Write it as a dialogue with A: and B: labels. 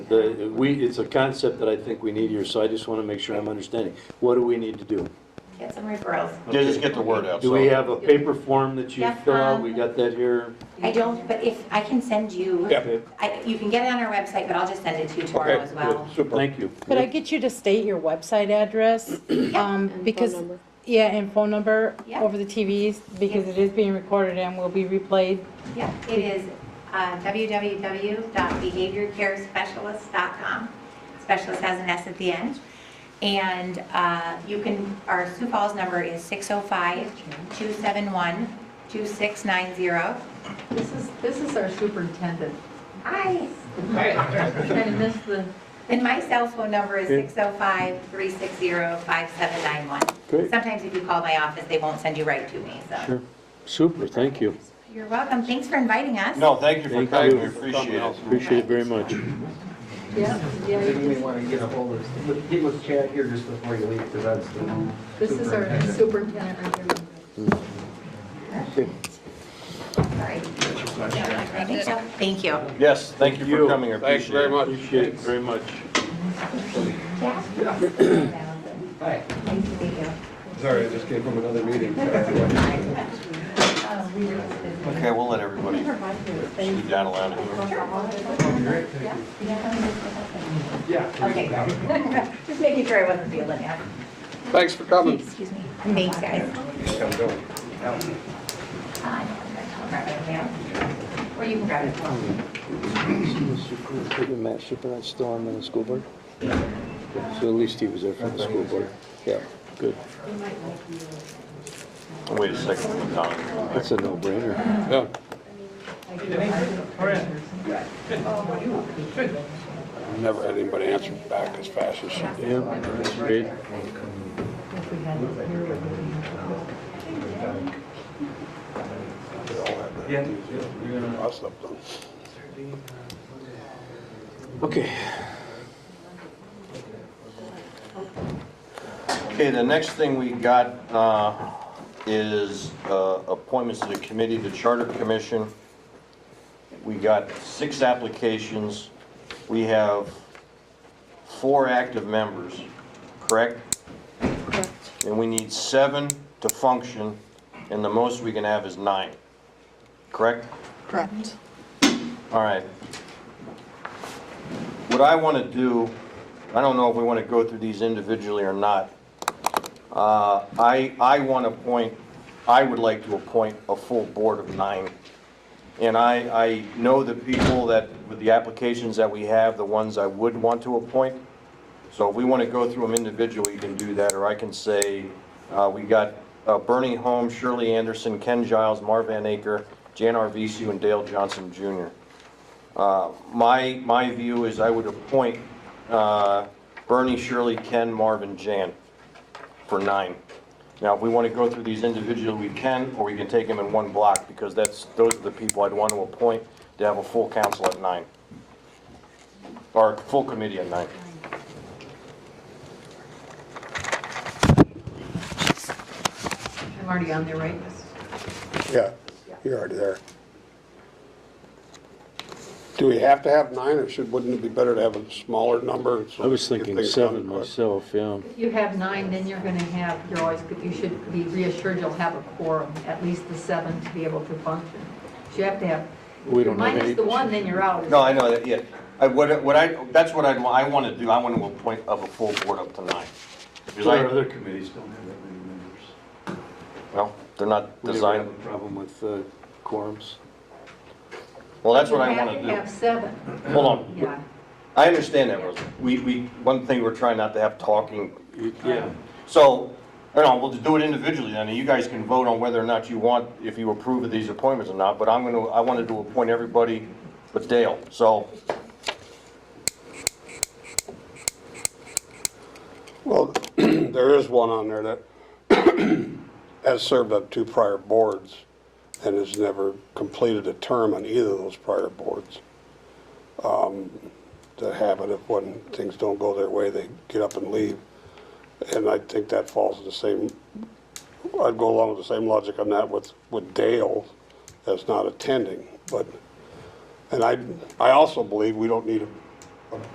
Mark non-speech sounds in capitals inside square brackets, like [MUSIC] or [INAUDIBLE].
A: The, we, it's a concept that I think we need here, so I just want to make sure I'm understanding. What do we need to do?
B: Get some referrals.
C: Yeah, just get the word out.
A: Do
C: so-
A: we have a paper form that you
B: Yeah,
A: fill out?
B: um,
A: We got that here?
B: I don't, but if, I can send you,
C: Yeah.
A: Okay,
B: I- you can get it on our website, but I'll just send it to you tomorrow
C: Okay,
B: as well.
C: good, super.
A: Thank you.
D: Could I get you to state your website address? Um, Because, yeah, and phone number
B: Yeah.
D: over the TVs, because
B: Yeah.
D: it is being recorded and will be replayed.
B: Yeah, it is uh, www.behaviorcarespecialist.com. Specialist has an S at the end. And uh, you can, our Sioux Falls number is 605-271-2690.
E: This is, this is our superintendent.
B: Hi.
E: Kind of missed the,
B: And my cell phone number is
A: Okay.
B: 605-360-5791.
A: Great,
B: Sometimes if you call my office, they won't send you right to me, so.
A: sure. Super, thank you.
B: You're welcome. Thanks for inviting us.
C: No, thank you for
A: Thank
C: coming, we
A: you.
C: appreciate it.
A: Appreciate it very much.
E: yeah, yeah,
F: Maybe we
E: you
F: want to get a hold of, get with Chad here just before you leave, because that's the.
E: just- this is our superintendent review.
B: Sorry. I think so. Thank you.
C: Yes, thank you for coming, I appreciate it.
G: Thanks very
A: Appreciate it very
G: much.
A: much.
F: Hi.
B: Nice to meet you.
G: Sorry, I just came from another meeting.
C: Okay, we'll let everybody scoot down a line here.
B: Okay. [LAUGHS] Just making sure I wasn't feeling it.
G: Thanks for coming.
B: Excuse me. Thanks, guys.
G: Thank
B: Uh, I'll grab it now. Or you can grab it.
A: Matt Supernight's still on the school board? So at least he was there for the school board. Yeah, good.
C: Wait a second, Tom.
A: That's a no-brainer.
G: Yeah. Never had anybody answer back as fast as she did.
A: Yeah, that's great.
G: Us up them.
A: Okay.
C: Okay, the next thing we got uh, is uh, appointments to the committee, the Charter Commission. We got six applications. We have four active members, correct? Correct. And we need seven to function, and the most we can have is nine, correct?
H: Correct.
C: All right. What I want to do, I don't know if we want to go through these individually or not. Uh, I, I want to appoint, I would like to appoint a full board of nine. And I, I know the people that, with the applications that we have, the ones I would want to appoint. So if we want to go through them individually, you can do that, or I can say, uh, we got uh, Bernie Holmes, Shirley Anderson, Ken Giles, Marv Van Aker, Jan Arvisu, and Dale Johnson Jr. Uh, My, my view is I would appoint uh, Bernie, Shirley, Ken, Marv, and Jan for nine. Now, if we want to go through these individually, we can, or we can take them in one block, because that's, those are the people I'd want to appoint to have a full council at nine, or full committee at nine.
E: I'm already on there, right?
G: Yeah, you're already there. Do we have to have nine, or should, wouldn't it be better to have a smaller number? so
A: I was
G: get
A: thinking
G: things
A: seven
G: done quick?
A: myself, yeah.
E: If you have nine, then you're going to have, you're always, you should be reassured you'll have a quorum, at least the seven to be able to function. So you have to have,
A: We don't have
E: minus
A: any.
E: the one, then you're out.
C: No, I know that, yeah. I, what, what I, that's what I'd, wa- I want to do, I want to appoint of a full board up to nine. Because
I: Our
C: I,
I: other committees don't have that many members.
C: well, they're not
A: We never have
C: designed,
A: a problem with uh, quorums.
C: well, that's what I want
E: You have to have
C: to
E: seven,
C: do. Hold on.
E: yeah.
C: I understand that, Rosa. We, we, one thing we're trying not to have talking,
A: Yeah.
C: so, you know, we'll just do it individually, then, and you guys can vote on whether or not you want, if you approve of these appointments or not, but I'm gonna, I wanted to appoint everybody but Dale, so,
G: Well, [CLEARS THROAT] there is one on there that [CLEARS THROAT] has served on two prior boards and has never completed a term on either of those prior boards. Um, The habit of when things don't go their way, they get up and leave. And I think that falls in the same, I'd go along with the same logic on that with, with Dale as not attending, but, and I, I also believe we don't need a